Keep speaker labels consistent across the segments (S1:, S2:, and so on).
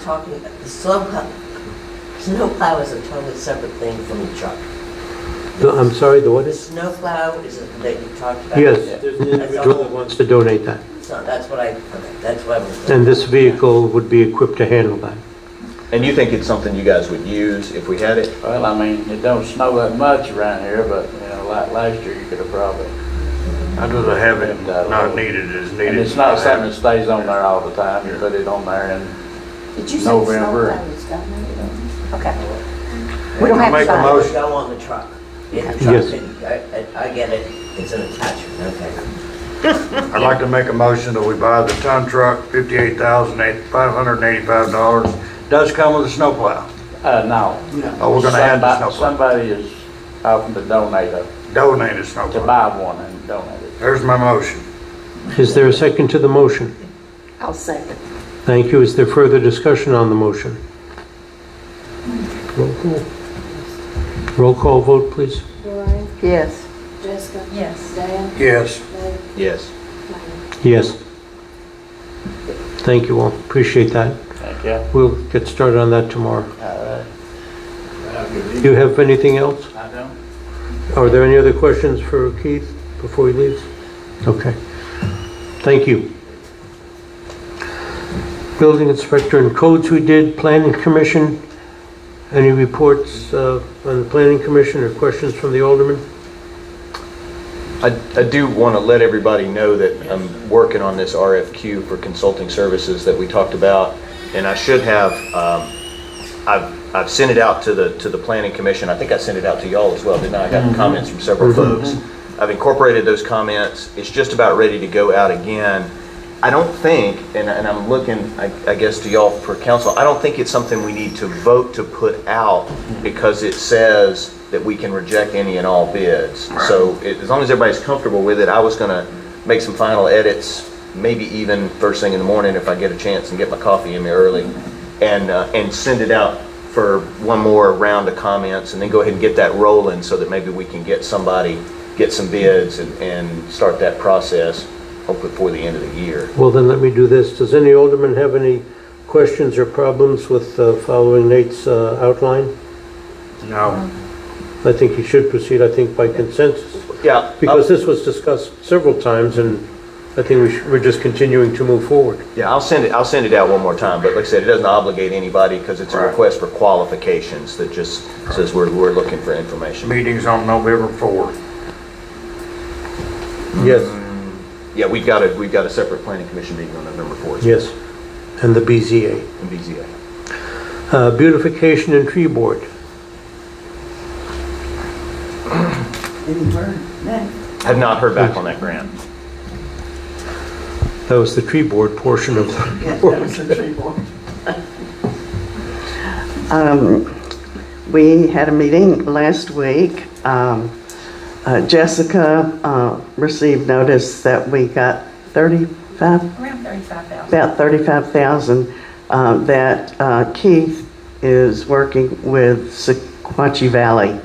S1: talking about, the snow plow, snow plow is a totally separate thing from the truck.
S2: No, I'm sorry, the what
S1: The
S2: is?
S1: snow plow is, a- that you talked about.
S2: Yes.
S3: There's an individual
S2: Julie
S3: that
S2: wants
S3: wants,
S2: to donate that.
S1: So that's what I, okay, that's what I was.
S2: And this vehicle would be equipped to handle that.
S4: And you think it's something you guys would use if we had it?
S5: Well, I mean, it don't snow that much around here, but, you know, like last year, you could have probably.
S6: I'd rather have it not needed as needed.
S5: And it's not something that stays on there all the time, you put it on there and,
S7: Did you say
S5: November.
S7: snowplow was done? Okay. We don't have
S6: Make a
S7: to.
S6: motion.
S1: Go on the truck. In the
S2: Yes.
S1: truck, and I, I I get it, it's an attachment, okay.
S6: I'd like to make a motion that we buy the ton truck, fifty-eight thousand eight, five hundred and eighty-five dollars. Does come with a snowplow.
S5: uh, no.
S6: Oh, we're gonna add the
S5: Somebody-
S6: snowplow.
S5: Somebody is offering to donate a,
S6: Donate a
S5: to
S6: snowplow.
S5: buy one and donate it.
S6: There's my motion.
S2: Is there a second to the motion?
S7: I'll second.
S2: Thank you. Is there further discussion on the motion? Roll call. Roll call vote, please.
S8: Lorraine,
S7: Yes.
S8: Jessica. Yes. Dan,
S6: Yes.
S8: Dave,
S4: Yes.
S8: Diane.
S2: Yes. Thank you all. Appreciate that.
S5: Thank you.
S2: We'll get started on that tomorrow.
S5: All right.
S2: Do you have anything else?
S5: I don't.
S2: Are there any other questions for Keith before he leaves? Okay. Thank you. Building inspector and codes we did, planning commission. Any reports uh, on the planning commission or questions from the alderman?
S4: I, I do want to let everybody know that I'm working on this RFQ for consulting services that we talked about, and I should have, um, I've, I've sent it out to the, to the planning commission, I think I sent it out to y'all as well, didn't I? I got comments from several folks. I've incorporated those comments, it's just about ready to go out again. I don't think, and, and I'm looking, I, I guess, to y'all for counsel, I don't think it's something we need to vote to put out because it says that we can reject any and all bids. So it- as long as everybody's comfortable with it, I was gonna make some final edits, maybe even first thing in the morning if I get a chance and get my coffee in me early, and, uh, and send it out for one more round of comments, and then go ahead and get that rolling so that maybe we can get somebody, get some bids and, and start that process, hopefully before the end of the year.
S2: Well, then let me do this. Does any alderman have any questions or problems with uh, following Nate's uh, outline?
S6: No.
S2: I think he should proceed, I think, by consensus.
S4: Yeah.
S2: Because this was discussed several times, and I think we should- we're just continuing to move forward.
S4: Yeah, I'll send it, I'll send it out one more time, but like I said, it doesn't obligate anybody because it's a
S6: Right.
S4: request for qualifications that just says we're, we're looking for information.
S6: Meeting's on November fourth.
S2: Yes,
S4: Yeah, we've got a, we've got a separate planning commission meeting on November 4th.
S2: yes, and the BZA.
S4: In BZA.
S2: Uh, Beautification and Tree Board.
S4: Have not heard back on that grant.
S2: That was the tree board portion of the
S9: Um, We had a meeting last week. Um, uh, Jessica uh, received notice that we got 35,
S10: Around 35,000.
S9: about 35,000, uh, that uh, Keith is working with Sequatchie Valley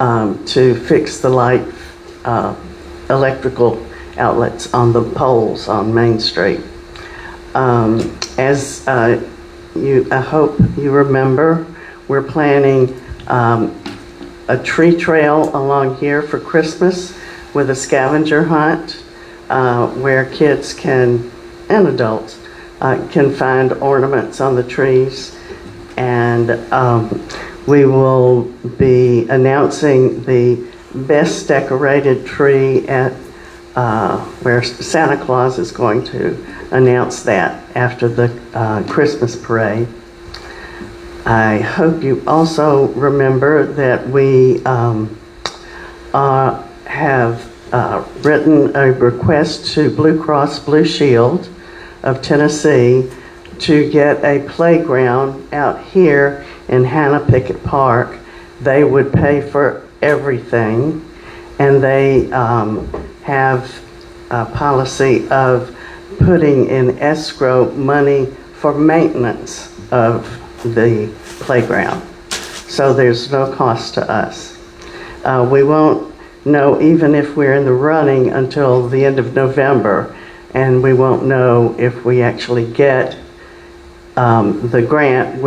S9: um, to fix the light uh, electrical outlets on the poles on Main Street. Um, As uh, you, I hope you remember, we're planning um, a tree trail along here for Christmas with a scavenger hunt uh, where kids can, and adults, uh, can find ornaments on the trees. And um, we will be announcing the best decorated tree at uh, where Santa Claus is going to announce that after the uh, Christmas parade. I hope you also remember that we um, uh, have uh, written a request to Blue Cross Blue Shield of Tennessee to get a playground out here in Hannah Pickett Park. They would pay for everything, and they um, have a policy of putting in escrow money for maintenance of the playground. So there's no cost to us. Uh, We won't know even if we're in the running until the end of November, and we won't know if we actually get um, the grant